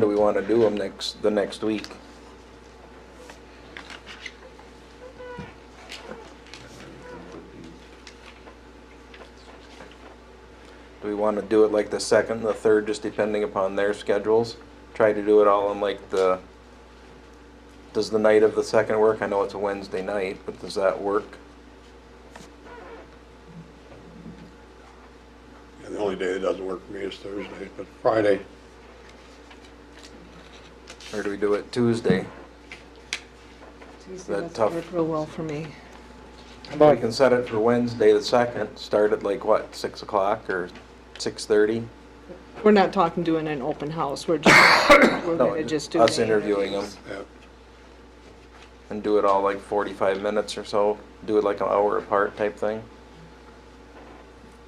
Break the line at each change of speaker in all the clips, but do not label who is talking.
Do we want to do them next, the next week? Do we want to do it like the second, the third, just depending upon their schedules? Try to do it all on like the, does the night of the second work? I know it's a Wednesday night, but does that work?
And the only day that doesn't work for me is Thursday, but Friday,
Or do we do it Tuesday?
Tuesday
That
doesn't
tough-
work real well for me.
How about we can set it for Wednesday the second, start at like what, six o'clock or six thirty?
We're not talking doing an open house, we're just, we're gonna just do.
Us
the
interviewing them
interviews.
yeah,
and do it all like forty-five minutes or so, do it like an hour apart type thing.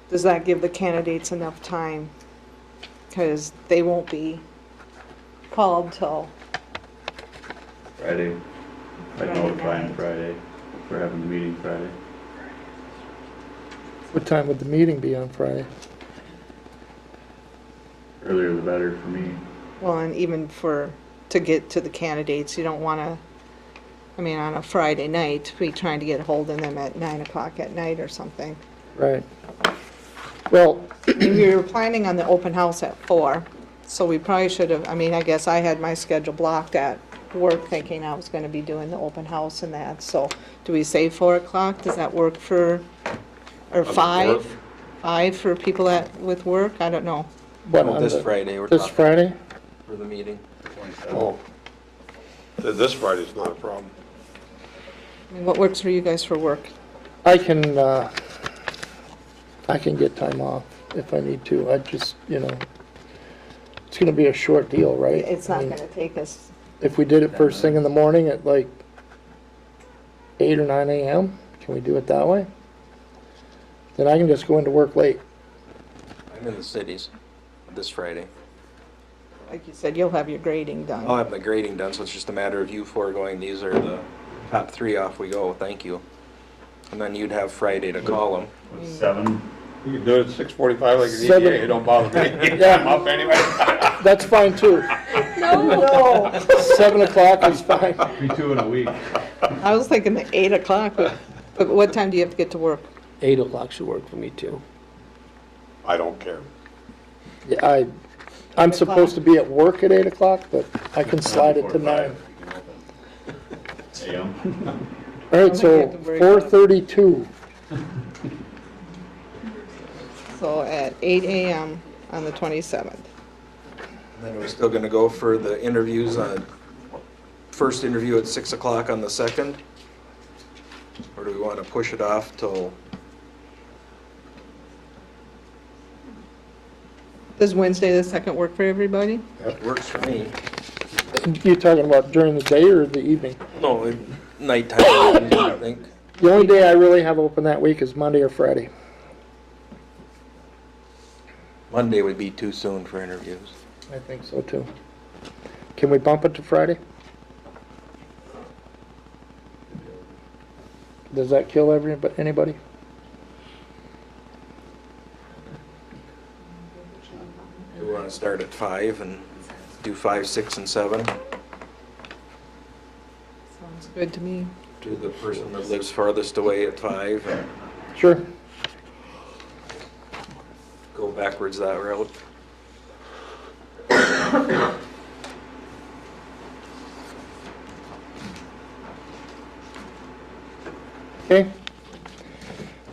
Does that give the candidates enough time? Cause they won't be called till,
Friday. I'd
Friday
notify
night.
him Friday. We're having the meeting Friday.
What time would the meeting be on Friday?
Earlier the better for me.
well, and even for, to get to the candidates, you don't wanna, I mean, on a Friday night, be trying to get hold of them at nine o'clock at night or something.
Right. Well,
We were planning on the open house at four, so we probably should have, I mean, I guess I had my schedule blocked at work thinking I was gonna be doing the open house and that, so do we say four o'clock? Does that work for, or five? Five for people that, with work? I don't know.
what
Well,
on
Oh, This
the,
Friday, we're
this
talking
Friday?
for the meeting.
oh. Th- This Friday's not a problem.
I mean, What works for you guys for work?
I can, uh, I can get time off if I need to. I just, you know, it's gonna be a short deal, right?
It's
I
not
mean,
gonna take us,
If we did it first thing in the morning at like eight or nine AM, can we do it that way? Then I can just go into work late.
I'm in the cities this Friday.
like you said, you'll have your grading
I'll
done.
have the grading done, so it's just a matter of you four going, these are the top three off we go, thank you. And then you'd have Friday to call them.
What's seven?
You can do it at six forty-five like an
Seven.
EDA, it don't bother me. I'm
Yeah,
up anyway.
that's fine too.
No,
Seven o'clock is fine.
Be two in a week.
I was thinking the eight o'clock, but, but what time do you have to get to work?
Eight o'clock should work for me too.
I don't care.
Yeah, I, I'm supposed to be at work at eight o'clock, but I can slide it to
Before five,
nine.
we can open. AM.
All right, so
Don't make it
four
to
thirty-two,
So at eight AM on the twenty-seventh.
Then we're still gonna go for the interviews on, first interview at six o'clock on the second? Or do we wanna push it off till,
Does Wednesday the second work for everybody?
it works for me?
you talking about during the day or the evening?
No, it- nighttime, I think.
The only day I really have open that week is Monday or Friday.
Monday would be too soon for interviews.
I think so too. Can we bump it to Friday? Does that kill everybody, anybody?
Do we wanna start at five and do five, six, and seven?
Sounds good to me.
Do the person that lives farthest away at five and
Sure.
go backwards that route?
Okay.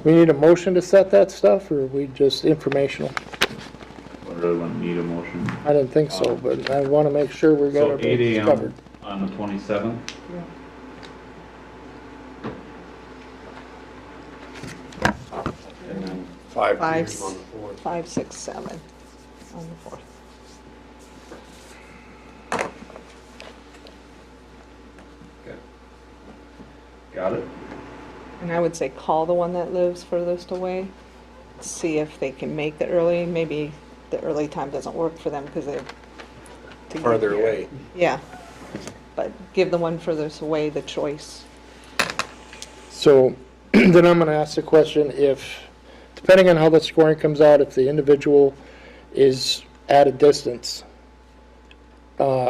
We need a motion to set that stuff, or we just informational?
I really wouldn't need a motion.
I didn't think so, but I want to make sure we got
So
our
eight
bases covered.
AM on the twenty-seventh. And then
Five
Five.
p.m. on the fourth.
Five, six, seven on the fourth.
Got it?
And I would say call the one that lives furthest away, see if they can make the early, maybe the early time doesn't work for them because they're. to get
Farther
here.
away.
Yeah, but give the one furthest away the choice.
So then I'm going to ask the question if, depending on how the scoring comes out, if the individual is at a distance, uh,